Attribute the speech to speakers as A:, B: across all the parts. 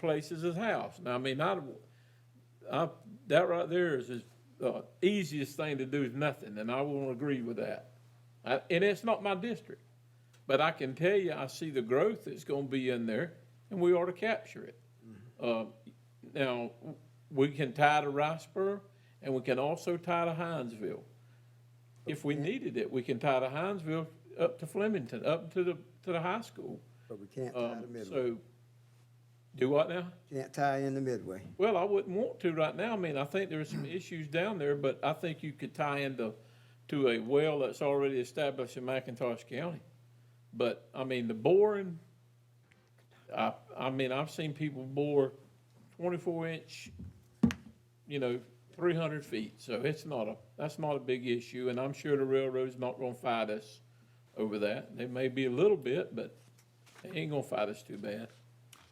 A: place as his house. Now, I mean, I, I, that right there is his, uh, easiest thing to do is nothing, and I won't agree with that. I, and it's not my district, but I can tell you, I see the growth that's gonna be in there, and we ought to capture it. Uh, now, we can tie to Riceboro, and we can also tie to Hinesville. If we needed it, we can tie to Hinesville up to Flemington, up to the, to the high school.
B: But we can't tie the
A: Um,
B: midway,
A: so, do what now?
B: can't tie in the midway.
A: Well, I wouldn't want to right now. I mean, I think there are some issues down there, but I think you could tie into, to a well that's already established in McIntosh County. But, I mean, the boring, I, I mean, I've seen people bore twenty-four inch, you know, three hundred feet, so it's not a, that's not a big issue, and I'm sure the railroad's not gonna fight us over that. They may be a little bit, but they ain't gonna fight us too bad.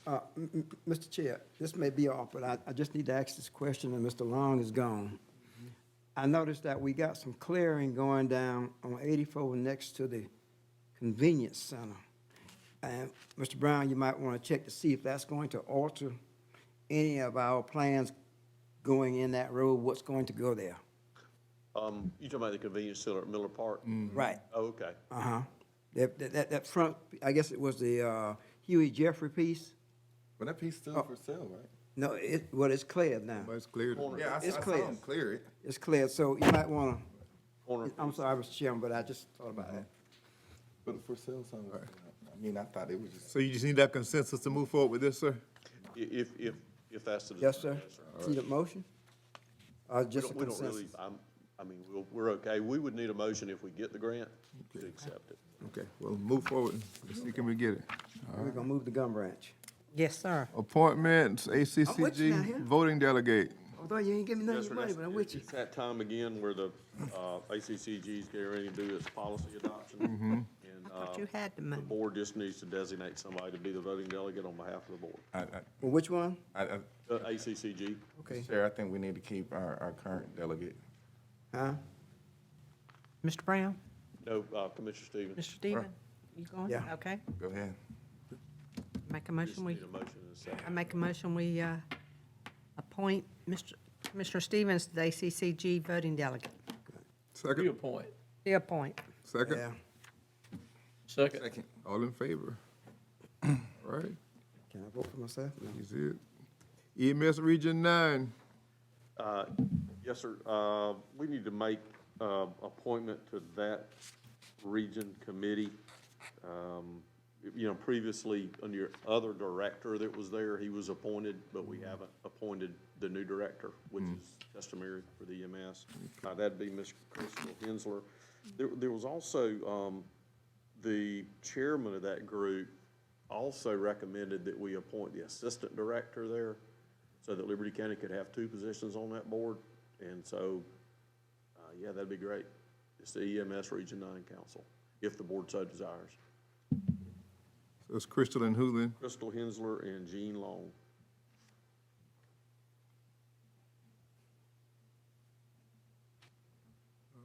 B: Uh, m- m- Mr. Chair, this may be off, but I, I just need to ask this question, and Mr. Long is gone. I noticed that we got some clearing going down on eighty-four next to the convenience center. And, Mr. Brown, you might want to check to see if that's going to alter any of our plans going in that road, what's going to go there.
C: Um, you talking about the convenience center at Miller Park?
A: Mm-hmm.
B: Right.
C: Oh, okay.
B: Uh-huh. That, that- that, that front, I guess it was the uh, Huey Jeffrey piece?
D: But that piece
E: Oh.
D: still for sale, right?
B: No, it, well, it's cleared now.
D: But it's cleared. Yeah, I, s-
B: It's
D: I saw
B: cleared.
D: him clear it.
B: It's clear, so you might want
C: Corner.
B: to, I'm sorry, Mr. Chairman, but I just thought about that.
C: Uh-huh.
D: But the for sale sign was, I mean, I thought it was just.
E: So you just need that consensus to move forward with this, sir?
C: I- If, if, if that's the.
B: Yes, sir? See the motion? Or
C: We
B: just a
C: don't, we don't
B: consensus?
C: really, I'm, I mean, we'll, we're okay. We would need a motion if we get the grant to accept it.
E: Okay, well, move forward. Let's see, can we get it?
B: We're gonna move the gum branch.
F: Yes, sir.
E: Appointments,
B: I'm with you now, here.
E: ACCG, voting delegate.
B: Although you ain't give me none of
C: Yes,
B: your
C: sir,
B: money,
C: that's-
B: but I'm with you.
C: It's that time again where the, uh, ACCG is getting ready to do its policy
B: Mm-hmm.
C: adoption. And,
F: I thought
C: uh,
F: you had the
C: The
F: money.
C: board just needs to designate somebody to be the voting delegate on behalf of the board. Uh,
D: I, I,
B: Well, which one?
D: I, I,
C: The ACCG,
B: Okay,
D: Chair, I think we need to keep our, our current delegate.
B: huh?
F: Mr. Brown,
C: no, uh, Commissioner Stevens.
F: Mr. Steven, you going?
B: Yeah.
F: Okay.
D: Go ahead.
F: Make a
C: Just
F: motion, we,
C: need a motion and a second.
F: I make a motion, we uh, appoint Mr. Commissioner Stevens to the ACCG voting delegate.
E: Second,
A: Reappoint.
F: The appoint.
B: Yeah.
E: second,
A: Second,
E: all in favor? All right,
B: Can I vote for myself? No.
E: you see it? EMS Region Nine,
C: Uh, Yes, sir. Uh, We need to make uh, appointment to that region committee. Um, You know, previously, under your other director that was there, he was appointed, but we haven't appointed the new director, which is customary for the EMS. Uh, That'd be Ms. Crystal Hensler. There there was also um, the chairman of that group also recommended that we appoint the assistant director there so that Liberty County could have two positions on that board. And so, uh, yeah, that'd be great. It's the EMS Region Nine Council, if the board so desires.
E: it's Crystal and Hoolan.
C: Crystal Hensler and Jean Long.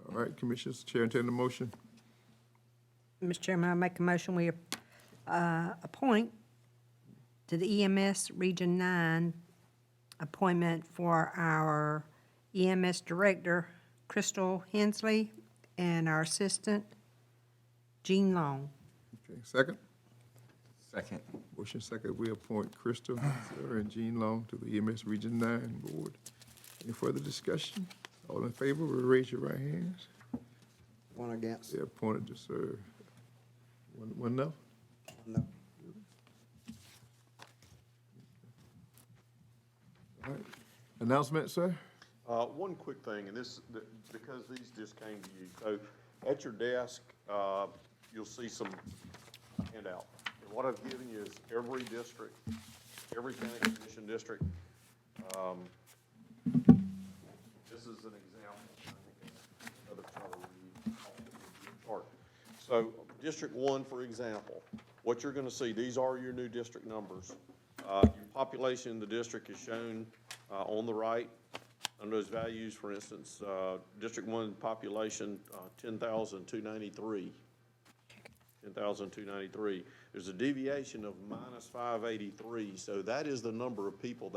E: All right, Commissioners, Chair, intend the motion.
F: Mr. Chairman, I make a motion, we uh, appoint to the EMS Region 9 appointment for our EMS Director, Crystal Hensley, and our Assistant, Jean Long.
E: Okay, second,
D: Second.
E: motion second, we appoint Crystal Sarah, and Jean Long to the EMS Region Nine Board. Any further discussion? All in favor, will raise your right hands.
B: One against?
E: They're appointed to serve. One, one no?
B: No.
E: All right. Announcement, sir?
C: Uh, One quick thing, and this, th- because these just came to you, so at your desk, uh, you'll see some handout. And what I've given you is every district, every county commission district. Um, This is an example. I think it's another chart we need. Chart. So, District One, for example, what you're gonna see, these are your new district numbers. Uh, Your population in the district is shown uh, on the right. Under those values, for instance, uh, District One population, uh, ten thousand two ninety-three. ten thousand two ninety-three. There's a deviation of minus five eighty-three, so that is the number of people